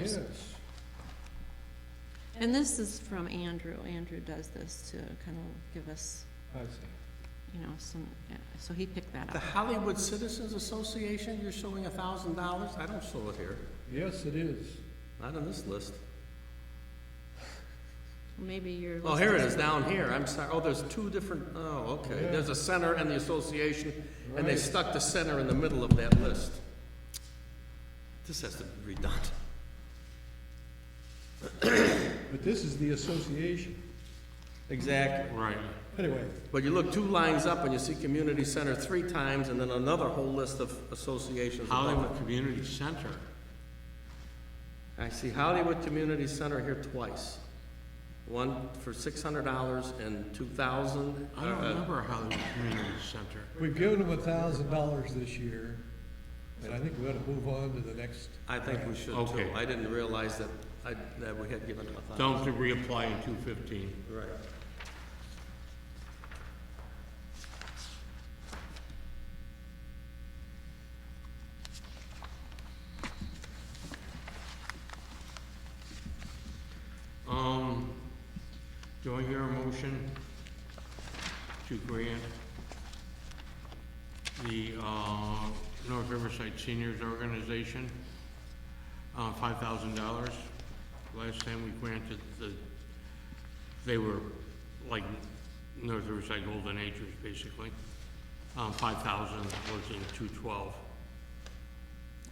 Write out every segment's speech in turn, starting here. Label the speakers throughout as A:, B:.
A: years.
B: is.
A: And this is from Andrew. Andrew does this to kind of give us,
B: I see.
A: you know, some, yeah, so he picked that
C: The
A: up.
C: Hollywood Citizens Association, you're showing a thousand dollars? I don't show it here,
B: Yes, it is.
C: not on this list.
A: Maybe you're.
C: Oh, here it
A: listening.
C: is, down here, I'm sorry, oh, there's two different, oh, okay.
B: Yeah.
C: There's a center and the association, and they
B: Right.
C: stuck the center in the middle of that list. This has to be redundant.
B: But this is the association.
C: Exactly. Right.
B: Anyway,
C: But you look two lines up and you see community center three times, and then another whole list of associations. above it.
D: Hollywood Community Center.
C: I see Hollywood Community Center here twice. One for six hundred dollars and two thousand. uh,
D: I don't remember a Hollywood Community Center.
B: we've given them a thousand dollars this year, and I think we ought to move on to the next.
C: I think we should too.
D: Okay.
C: I didn't realize that, I, that we had given them a thousand.
D: Don't have to reapply in two fifteen.
C: Right.
D: Um, do I hear a motion to grant the, uh, North Riverside Seniors Organization, uh, five thousand dollars? Last time we granted the, they were like North Riverside Golden Acres, basically. Um, five thousand was in two twelve.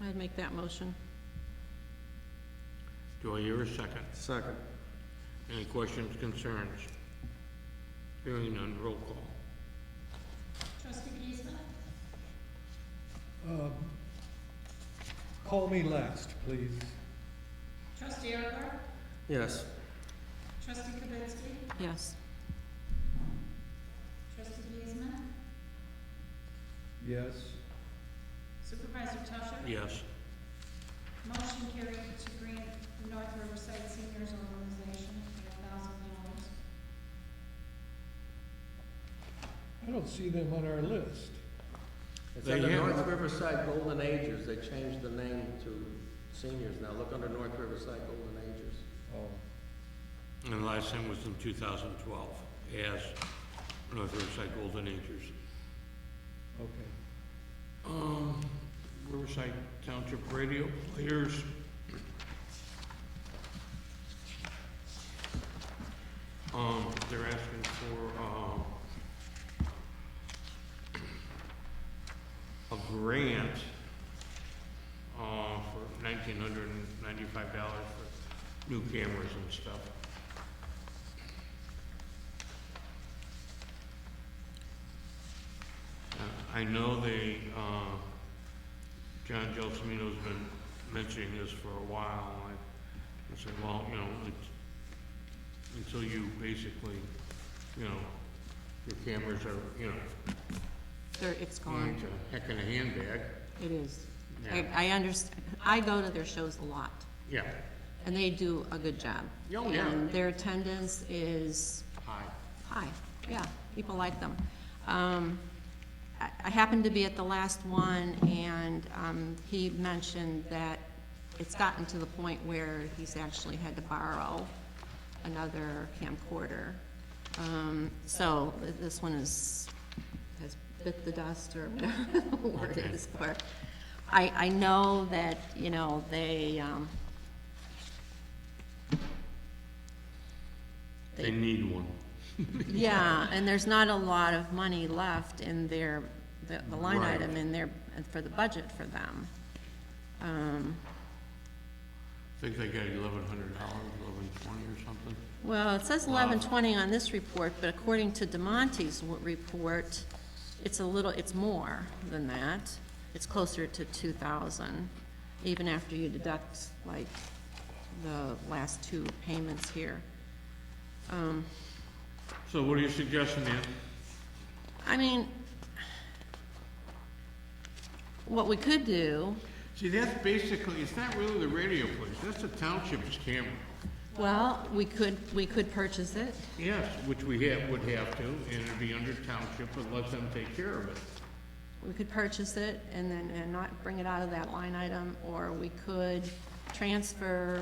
A: I'd make that motion.
D: Do I hear a second?
C: Second.
D: Any questions, concerns? Hearing none, roll call.
E: Trustee Giesman?
B: Um, Call me last, please.
E: Trustee Ergar?
C: Yes.
E: Trustee Kibitsky?
A: Yes.
E: Trustee Giesman?
B: Yes.
E: Supervisor Tusher?
D: Yes.
E: Motion carried to grant North Riverside Seniors Organization thousand dollars.
B: I don't see them on our list.
C: It's
D: They
C: under
D: have-
C: North Riverside Golden Agers. They changed the name to seniors now. Look under North Riverside Golden Agers.
B: Oh.
D: And the last time was in 2012, as North Riverside Golden Acres.
B: Okay.
D: Um, Riverside Township Radio Players. Um, they're asking for, um, a grant, uh, for nineteen hundred and ninety-five dollars for new cameras and stuff. Uh, I know they, uh, John Gelsomino's been mentioning this for a while, and I- I said, well, you know, it's, until you basically, you know, your cameras are, you know,
A: There, it's
D: going
A: gone.
D: to heck in a handbag,
C: Mm.
A: It is. I,
D: yeah,
A: I understand. I go to their shows a lot
D: yeah,
A: and they do a good job.
D: Oh, yeah.
A: And their attendance is
D: hi,
A: Hi, yeah, people like them. Um, I I happened to be at the last one, and um, he mentioned that it's gotten to the point where he's actually had to borrow another camcorder. Um, So th- this one is, has bit the dust or whatever the word
D: Okay.
A: is for. it. I, I know that, you know, they, um,
D: they need one.
A: Yeah, and there's not a lot of money left in their, the the line
D: Right.
A: item in their, for the budget for them. Um,
D: I think they got eleven hundred dollars, eleven twenty or something.
A: Well, it says
D: Wow.
A: eleven twenty on this report, but according to DeMonte's w- report, it's a little, it's more than that. It's closer to two thousand, even after you deduct like the last two payments here. Um,
D: So what are you suggesting, Ann?
A: I mean, what we could do
D: See, that's basically, it's not really the radio place, that's the township's camera.
A: Well, we could, we could purchase it.
D: Yes, which we have, would have to, and it'd be under township, but let them take care of it.
A: We could purchase it and then, and not bring it out of that line item, or we could transfer